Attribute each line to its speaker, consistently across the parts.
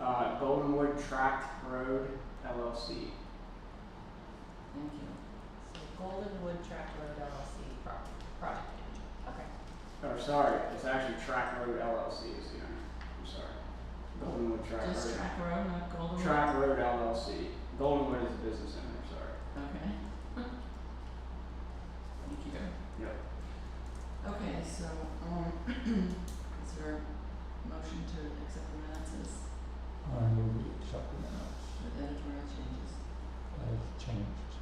Speaker 1: uh, Goldenwood Tract Road LLC.
Speaker 2: Thank you.
Speaker 3: So Goldenwood Track Road LLC pro- project manager, okay.
Speaker 1: Or sorry, it's actually Track Road LLC is the owner. I'm sorry. Goldenwood Track
Speaker 2: Just
Speaker 1: Road.
Speaker 2: track road, not golden.
Speaker 1: Track Road LLC. Goldenwood is the business owner, sorry.
Speaker 2: Okay. Thank you.
Speaker 1: Yep.
Speaker 2: Okay, so, um, is there a motion to accept the minutes as
Speaker 4: I move we accept the minutes
Speaker 2: with editorial changes?
Speaker 4: as changed.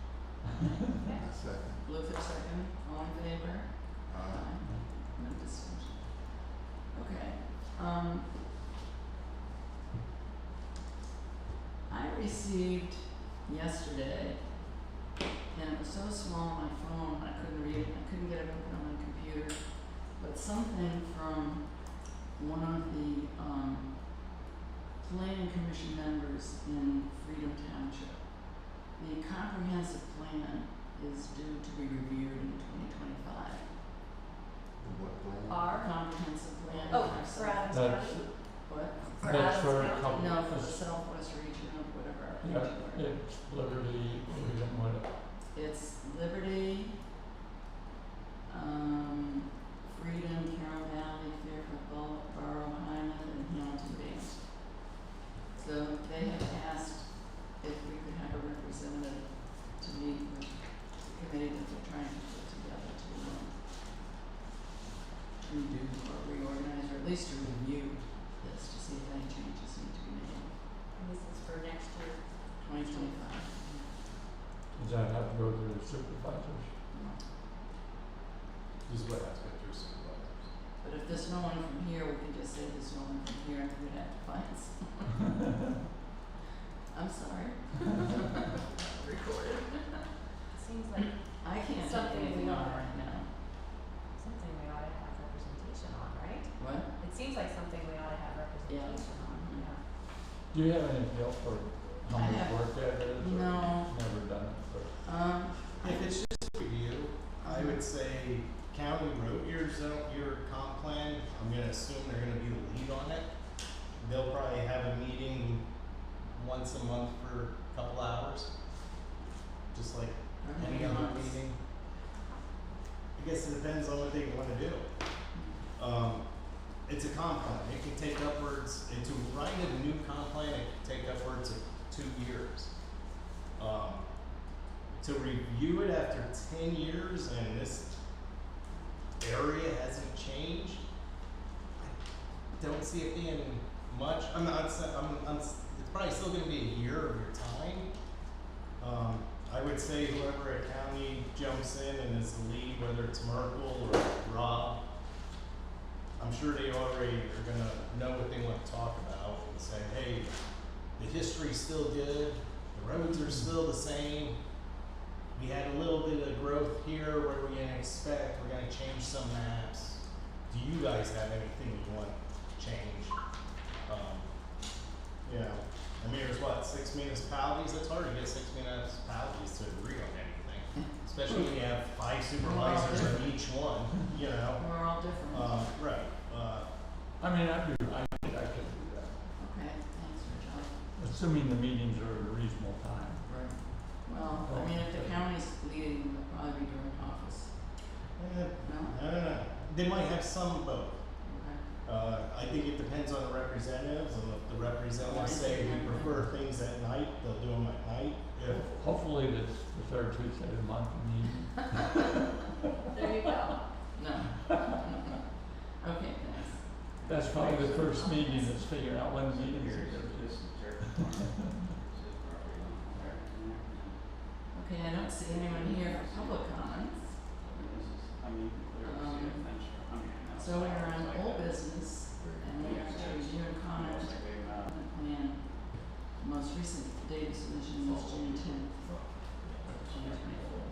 Speaker 3: Yeah.
Speaker 5: Second.
Speaker 2: Bluefish second, all in favor?
Speaker 5: Aye.
Speaker 2: No discussion. Okay, um. I received yesterday, and it was so small on my phone, I couldn't read it, I couldn't get it open on my computer. But something from one of the, um, planning commission members in Freedom Township. The comprehensive plan is due to be reviewed in twenty twenty-five.
Speaker 5: What plan?
Speaker 3: R,
Speaker 2: Comprehensive plan.
Speaker 3: oh,
Speaker 2: for
Speaker 3: for
Speaker 2: South-
Speaker 3: Adams
Speaker 4: That's,
Speaker 3: County?
Speaker 2: What?
Speaker 3: For
Speaker 4: that's
Speaker 3: Adams
Speaker 4: for a
Speaker 3: County?
Speaker 4: couple,
Speaker 2: No, for the
Speaker 4: it's,
Speaker 2: southwest region of whatever. our
Speaker 4: yeah,
Speaker 2: region were.
Speaker 4: it's literally, we don't want it.
Speaker 2: It's Liberty, um, Freedom, Carroll Valley, Fairfield, Bul- Borough, Hyman, and Hamilton Bays. So they have asked if we could have a representative to meet with the committee that they're trying to put together to, um, to do or reorganize, or at least to review this, to see if any changes need to be made,
Speaker 3: And this is for next year.
Speaker 2: twenty twenty-five.
Speaker 4: Does that have to go to the supervisors?
Speaker 5: This is what has been through some of others.
Speaker 2: But if there's no one from here, we can just say there's no one from here, and we'd have to find some. I'm sorry. Recorded.
Speaker 3: Seems like
Speaker 2: I can't take
Speaker 3: Something is
Speaker 2: anything on
Speaker 3: not
Speaker 2: right now.
Speaker 3: something we ought to have representation on, right?
Speaker 2: What?
Speaker 3: It seems like something we ought to have representation on,
Speaker 2: Mhm.
Speaker 3: yeah.
Speaker 4: Do you have any feel for
Speaker 2: I
Speaker 4: how much
Speaker 2: have-
Speaker 4: work that is
Speaker 2: No.
Speaker 4: or you've never done it for?
Speaker 2: Um,
Speaker 6: If it's just for you, I would say county wrote your zone, your comp plan, I'm gonna assume they're gonna be the lead on it. They'll probably have a meeting once a month for a couple hours. Just like
Speaker 2: I don't
Speaker 6: any
Speaker 2: know,
Speaker 6: other
Speaker 2: months.
Speaker 6: meeting. I guess it depends on what they wanna do. Um, it's a comp plan, it can take upwards, and to write a new comp plan, it can take upwards of two years. Um, to review it after ten years and this area hasn't changed, I don't see it being much, I'm not, sa- I'm, I'm, s- it's probably still gonna be a year of your time. Um, I would say whoever at county jumps in and is the lead, whether it's Merkel or Rob, I'm sure they already are gonna know what they wanna talk about and say, hey, the history's still good, the roads are still the same. We had a little bit of growth here, what are we gonna expect, we're gonna change some maps. Do you guys have anything you want changed? Um, you know, I mean, there's what, six municipalities, it's hard to get six municipalities to agree on anything. Especially when you have five supervisors in each one, you know?
Speaker 2: We're all different.
Speaker 6: Uh, right, uh,
Speaker 4: I mean, I do, I think I could do that,
Speaker 2: Okay, thanks for telling.
Speaker 4: assuming the meetings are at a reasonable time.
Speaker 2: Right. Well, I mean, if the county's leading, it'll probably be during office,
Speaker 6: eh,
Speaker 2: no?
Speaker 6: I don't know, they might have some of both.
Speaker 2: Okay,
Speaker 6: Uh, I think it depends on the representatives, and if the representatives say we prefer things at night, they'll do them at night. If
Speaker 4: Hopefully it's the third Tuesday of the month, and you
Speaker 3: There you go.
Speaker 2: no. Okay, thanks.
Speaker 4: That's probably the first meeting that's figuring out when the meeting
Speaker 1: Here's
Speaker 4: is.
Speaker 1: this dirt farm. This is property on there, and there, and
Speaker 2: Okay, I don't see anyone here for public comments.
Speaker 1: this is, I mean, clearly see a fence or- I mean,
Speaker 2: Um,
Speaker 1: that's
Speaker 2: So we're on
Speaker 1: like
Speaker 2: old
Speaker 1: a-
Speaker 2: business, and we have to review and comment
Speaker 1: Almost like a, uh,
Speaker 2: on the plan. The Most recent date of submission was June tenth, twenty twenty-four.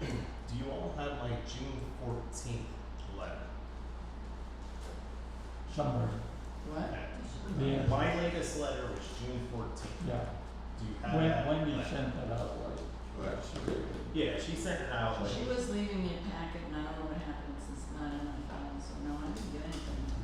Speaker 6: do you all have like June fourteenth letter?
Speaker 4: Somewhere,
Speaker 2: What?
Speaker 4: Yeah.
Speaker 6: My latest letter was June fourteenth.
Speaker 4: yeah.
Speaker 6: Do you have
Speaker 4: When,
Speaker 6: that?
Speaker 4: Wendy
Speaker 6: letter?
Speaker 4: sent that out, like,
Speaker 5: Right.
Speaker 4: she did.
Speaker 6: Yeah, she sent it out.
Speaker 2: She
Speaker 6: like-
Speaker 2: was leaving me a packet and I don't know what happened since it's not in my file, so no, I didn't get anything.